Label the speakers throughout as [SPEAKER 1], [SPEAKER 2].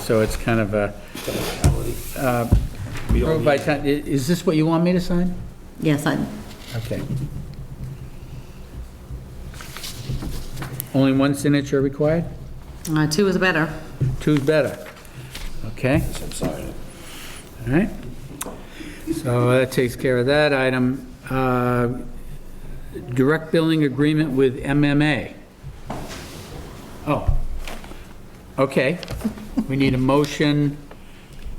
[SPEAKER 1] so it's kind of a,
[SPEAKER 2] We don't
[SPEAKER 1] approved by,
[SPEAKER 2] need-
[SPEAKER 1] town- i- is this what you want me to sign?
[SPEAKER 3] Yes, I,
[SPEAKER 1] Okay. Only one signature required?
[SPEAKER 3] uh, two is better.
[SPEAKER 1] Two's better. Okay?
[SPEAKER 2] I'm sorry.
[SPEAKER 1] All right. So that takes care of that item. Uh, Direct billing agreement with MMA. Oh, okay. We need a motion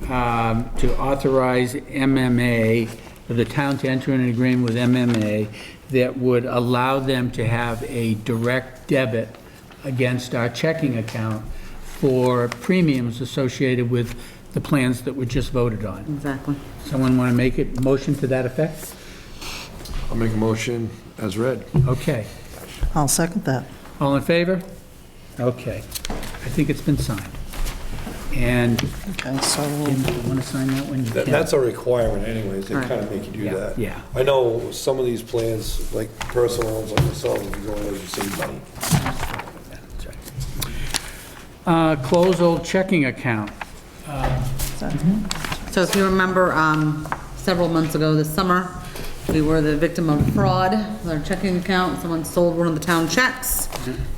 [SPEAKER 1] um, to authorize MMA, for the town to enter an agreement with MMA that would allow them to have a direct debit against our checking account for premiums associated with the plans that were just voted on.
[SPEAKER 3] Exactly.
[SPEAKER 1] Someone want to make a motion to that effect?
[SPEAKER 4] I'll make a motion as read.
[SPEAKER 1] Okay.
[SPEAKER 5] I'll second that.
[SPEAKER 1] All in favor? Okay. I think it's been signed. And
[SPEAKER 5] Okay, so
[SPEAKER 1] Jim, do you want to sign that one? You
[SPEAKER 2] That-
[SPEAKER 1] can.
[SPEAKER 2] That's a requirement anyways, they
[SPEAKER 3] Right.
[SPEAKER 2] kind of make you do
[SPEAKER 1] Yeah,
[SPEAKER 2] that.
[SPEAKER 1] yeah.
[SPEAKER 2] I know some of these plans, like personal ones like myself, if you go in, there, you save money.
[SPEAKER 1] That's right. Uh, Close old checking account.
[SPEAKER 3] So if you remember, um, several months ago this summer, we were the victim of fraud with our checking account. Someone sold one of the town checks,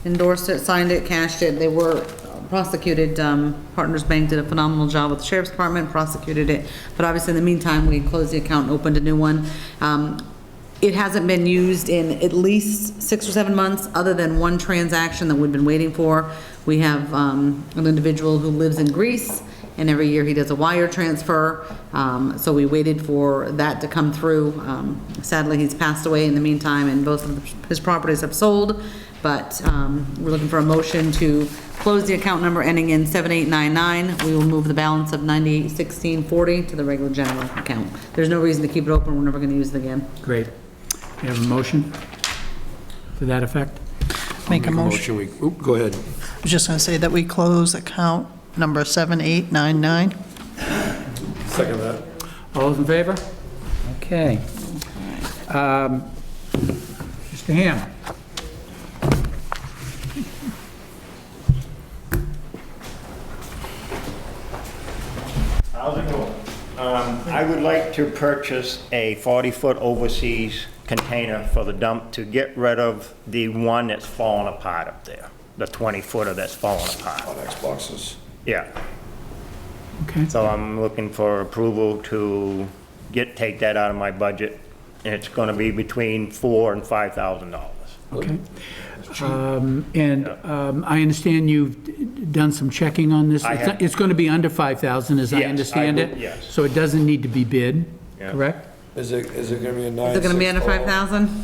[SPEAKER 3] endorsed it, signed it, cashed it. They were prosecuted. Um, Partners Bank did a phenomenal job with the sheriff's department, prosecuted it. But obviously, in the meantime, we closed the account and opened a new one. Um, it hasn't been used in at least six or seven months, other than one transaction that we've been waiting for. We have um, an individual who lives in Greece, and every year he does a wire transfer. Um, So we waited for that to come through. Um, Sadly, he's passed away in the meantime, and both of his properties have sold. But um, we're looking for a motion to close the account number ending in 7899. We will move the balance of 981640 to the regular general account. There's no reason to keep it open, we're never going to use it again.
[SPEAKER 1] Great. You have a motion to that effect?
[SPEAKER 5] make a
[SPEAKER 4] Motion
[SPEAKER 5] motion.
[SPEAKER 4] we, oop, go ahead.
[SPEAKER 5] I was just going to say that we close account number 7899.
[SPEAKER 2] Second that.
[SPEAKER 1] All those in favor? Okay. Um, Mr. Ham?
[SPEAKER 6] How's it going? Um, I would like to purchase a 40-foot overseas container for the dump to get rid of the one that's falling apart up there, the 20-footer that's falling apart.
[SPEAKER 2] On Xboxes.
[SPEAKER 6] Yeah,
[SPEAKER 1] Okay.
[SPEAKER 6] so I'm looking for approval to get, take that out of my budget, and it's gonna be between four and $5,000.
[SPEAKER 1] Okay. Um, And um, I understand you've d- done some checking on this.
[SPEAKER 6] I
[SPEAKER 1] It's not-
[SPEAKER 6] have.
[SPEAKER 1] It's going to be under 5,000, as I
[SPEAKER 6] Yes, I
[SPEAKER 1] understand
[SPEAKER 6] would-
[SPEAKER 1] it?
[SPEAKER 6] yes.
[SPEAKER 1] So it doesn't need to be bid,
[SPEAKER 6] Yeah.
[SPEAKER 1] correct?
[SPEAKER 2] Is it, is it gonna be a nine?
[SPEAKER 3] Is it gonna be
[SPEAKER 2] six,
[SPEAKER 3] under
[SPEAKER 2] or-
[SPEAKER 3] five thousand?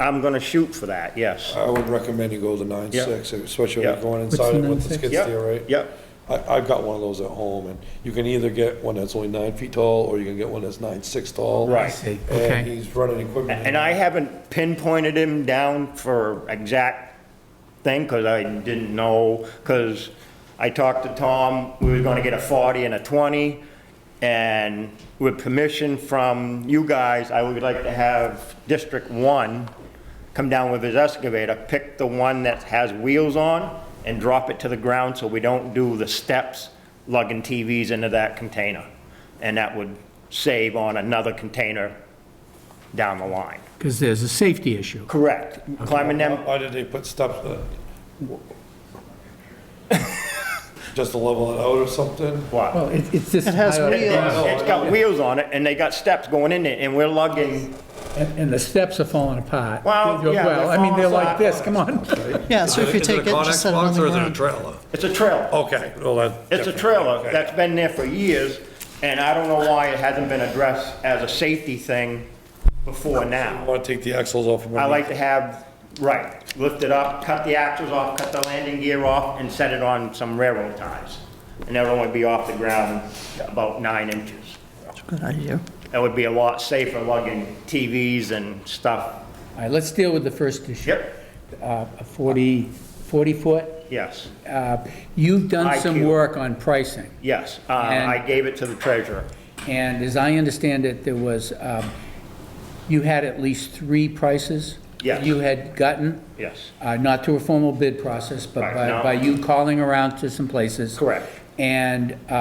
[SPEAKER 6] I'm gonna shoot for that, yes.
[SPEAKER 2] I would recommend you go to nine
[SPEAKER 6] Yeah.
[SPEAKER 2] six, especially
[SPEAKER 6] Yeah.
[SPEAKER 2] if you're going
[SPEAKER 1] What's
[SPEAKER 2] inside
[SPEAKER 1] the
[SPEAKER 2] it with the
[SPEAKER 1] 9.6?
[SPEAKER 2] skid
[SPEAKER 6] Yeah,
[SPEAKER 2] steer, right?
[SPEAKER 6] yeah.
[SPEAKER 2] I, I've got one of those at home, and you can either get one that's only nine feet tall, or you can get one that's nine six tall.
[SPEAKER 6] Right. I
[SPEAKER 1] see.
[SPEAKER 2] And
[SPEAKER 1] Okay.
[SPEAKER 2] he's running equipment.
[SPEAKER 6] And I haven't pinpointed him down for exact thing, because I didn't know, because I talked to Tom, we were gonna get a 40 and a 20, and with permission from you guys, I would like to have District 1 come down with his excavator, pick the one that has wheels on, and drop it to the ground, so we don't do the steps lugging TVs into that container. And that would save on another container down the line.
[SPEAKER 1] Because there's a safety issue.
[SPEAKER 6] Correct. Climbing them,
[SPEAKER 2] Why did they put steps in it? Just to level it out or something?
[SPEAKER 6] what?
[SPEAKER 1] it's just...
[SPEAKER 5] It has I don't-
[SPEAKER 6] It-
[SPEAKER 5] wheels.
[SPEAKER 6] It's it's got wheels on it, and they got steps going in it, and we're lugging,
[SPEAKER 1] And and the steps are falling apart.
[SPEAKER 6] Well, yeah,
[SPEAKER 1] Well, I mean,
[SPEAKER 6] they're
[SPEAKER 1] they're
[SPEAKER 6] falling
[SPEAKER 1] like this, come on.
[SPEAKER 5] Yeah, so if you
[SPEAKER 2] Is it a
[SPEAKER 5] take it, just set it on
[SPEAKER 2] Connex box
[SPEAKER 5] the
[SPEAKER 2] Or is it a
[SPEAKER 5] ground.
[SPEAKER 2] trailer?
[SPEAKER 6] it's a trailer.
[SPEAKER 2] Oh, Okay, well, that.
[SPEAKER 6] It's a trailer that's been there for years, and I don't know why it hasn't been addressed as a safety thing before
[SPEAKER 2] I
[SPEAKER 6] now.
[SPEAKER 2] want to take the axles off. of
[SPEAKER 6] I
[SPEAKER 2] it.
[SPEAKER 6] like to have, right, lift it up, cut the axles off, cut the landing gear off, and set it on some railroad ties. And that'll only be off the ground about nine inches.
[SPEAKER 5] Good idea.
[SPEAKER 6] That would be a lot safer lugging TVs and stuff.
[SPEAKER 1] All right, let's deal with the first issue.
[SPEAKER 6] Yep,
[SPEAKER 1] Uh, A 40, 40-foot.
[SPEAKER 6] yes.
[SPEAKER 1] You've done some
[SPEAKER 6] IQ.
[SPEAKER 1] work on pricing.
[SPEAKER 6] Yes, uh, I gave it to the treasurer.
[SPEAKER 1] And as I understand it, there was, um, you had at least three prices?
[SPEAKER 6] Yes.
[SPEAKER 1] You had gotten?
[SPEAKER 6] Yes.
[SPEAKER 1] Uh, Not through a formal bid process, but
[SPEAKER 6] Right,
[SPEAKER 1] by
[SPEAKER 6] no.
[SPEAKER 1] by you calling around to some places?
[SPEAKER 6] Correct.
[SPEAKER 1] And uh,